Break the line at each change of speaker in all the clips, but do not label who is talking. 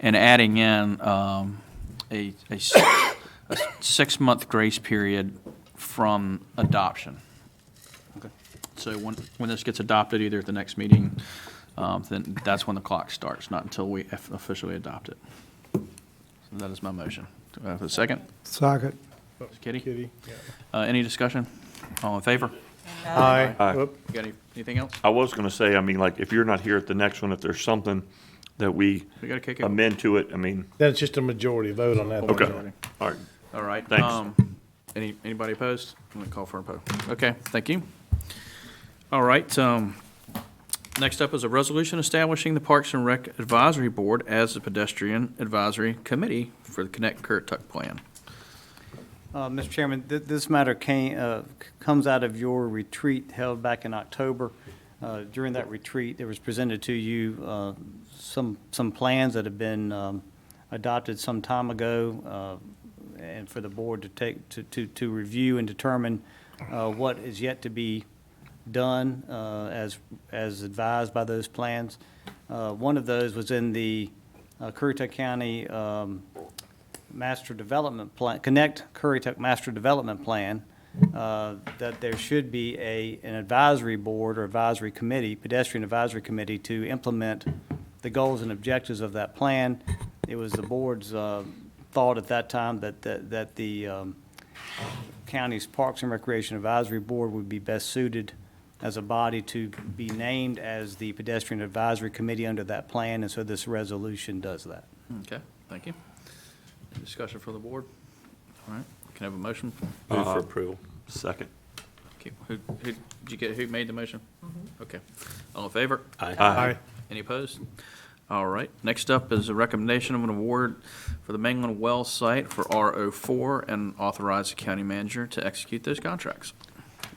and adding in um, a, a s- a six-month grace period from adoption. So when, when this gets adopted, either at the next meeting, um, then that's when the clock starts, not until we eff- officially adopt it. So That is my motion. Do I have a second?
Socket.
Kitty?
Kitty.
Uh, Any discussion? All in favor?
Aye.
Aye.
Whoop.
You got any- anything else?
I was gonna say, I mean, like, if you're not here at the next one, if there's something that we
We gotta kick it.
amend to it, I mean,
Then it's just a majority vote on that.
okay, all right.
All right.
Thanks.
um, Any, anybody opposed? I'm gonna call for a vote. Okay, thank you. All right, um, next up is a resolution establishing the Parks and Rec Advisory Board as the pedestrian advisory committee for the Connect Currituck Plan.
Uh, Mr. Chairman, th- this matter came, uh, c- comes out of your retreat held back in October. Uh, During that retreat, there was presented to you uh, some, some plans that have been um, adopted some time ago, uh, and for the board to take, to, to, to review and determine uh, what is yet to be done uh, as, as advised by those plans. Uh, One of those was in the uh, Currituck County um, master development plan, Connect Currituck Master Development Plan, uh, that there should be a, an advisory board or advisory committee, pedestrian advisory committee, to implement the goals and objectives of that plan. It was the board's uh, thought at that time that, that that the um, county's Parks and Recreation Advisory Board would be best suited as a body to be named as the pedestrian advisory committee under that plan, and so this resolution does that.
Okay, thank you. Any Discussion for the board? All right, can I have a motion?
Move for approval. uh, Second.
Okay, Who, who, did you get, who made the motion? Okay. All in favor?
Uh,
Aye.
Any opposed? All right, next up is a recommendation of an award for the Mangland Well site for RO4 and authorize the county manager to execute those contracts.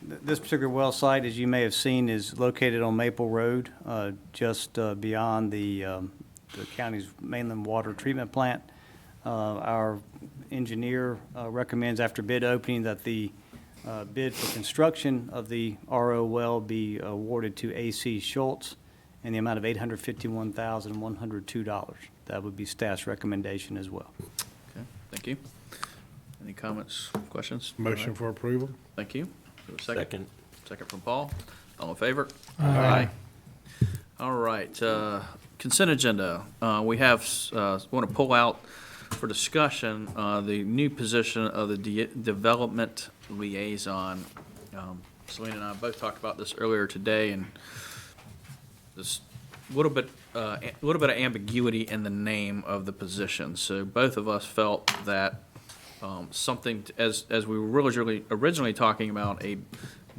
Th- This particular well site, as you may have seen, is located on Maple Road, uh, just uh, beyond the um, the county's mainland water treatment plant. Uh, Our engineer uh, recommends after bid opening that the uh, bid for construction of the RO well be awarded to AC Schultz in the amount of $851,102. That would be staff's recommendation as well.
Okay, thank you. Any comments, questions?
Motion for approval.
Thank you. Do a Second. Second from Paul. All in favor?
Aye.
All right, uh, consent agenda. Uh, We have, want to pull out for discussion uh, the new position of the de- development liaison. Um, Selena and I both talked about this earlier today, and this little bit, uh, a little bit of ambiguity in the name of the position. So both of us felt that um, something, t- as, as we were originally, originally talking about a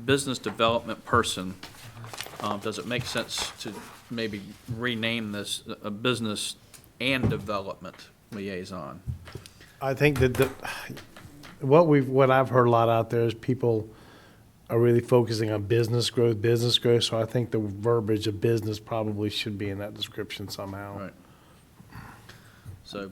business development person, um, does it make sense to maybe rename this a business and development liaison?
I think that the, what we've, what I've heard a lot out there is people are really focusing on business growth, business growth. So I think the verbiage of business probably should be in that description somehow.
Right. So,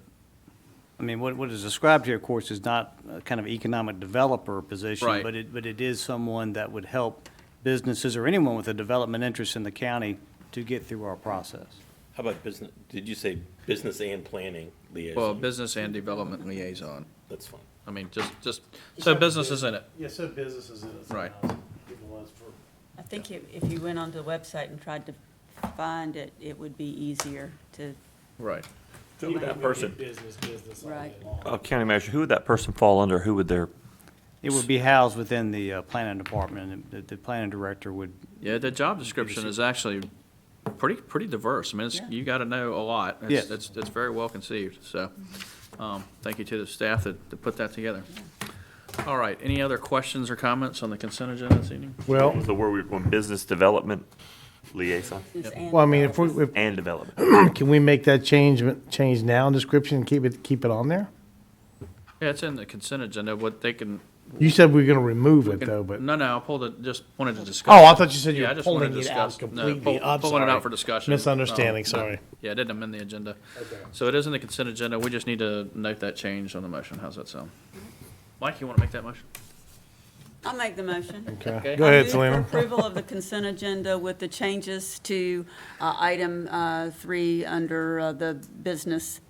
I mean, what, what is described here, of course, is not a kind of economic developer position.
Right.
But it, but it is someone that would help businesses or anyone with a development interest in the county to get through our process.
How about business, did you say business and planning
well,
liaison?
business and development liaison.
That's fine.
I mean, just, just, so business is in it.
Yeah, so business is in it.
Right.
I think if, if you went onto the website and tried to find it, it would be easier to,
Right.
Who would that person,
Business, business.
all Right. day
uh, county manager, who would that person fall under? Who would their,
It would be housed within the uh, planning department, and the, the planning director would,
Yeah, the job description is actually pretty, pretty diverse. I mean, it's,
Yeah.
you gotta know a lot. It's-
Yes.
It's, it's very well conceived, so, um, thank you to the staff that, that put that together. All right, any other questions or comments on the consent agenda this evening?
Well,
was the word we were going, business development liaison
since Ann.
well, I mean, if we, if,
and development?
can we make that change, change now in description and keep it, keep it on there?
Yeah, it's in the consent agenda, what they can.
You said we are gonna remove it though, but.
No, no, I pulled it, just wanted to discuss.
Oh, I thought you said you
Yeah, I
were
just wanted
pulling
to
it out
discuss. No, pull-
completely. I'm
Pulling it
sorry.
out for discussion.
Misunderstanding,
Um,
sorry.
Yeah, I didn't amend the agenda. So it is in the consent agenda, we just need to note that change on the motion, how's that sound? Mike, you want to make that motion?
I'll make the motion.
Okay.
Okay.
Go
I
ahead,
move for
Selena.
Approval of the consent agenda with the changes to uh, item uh, three under uh, the business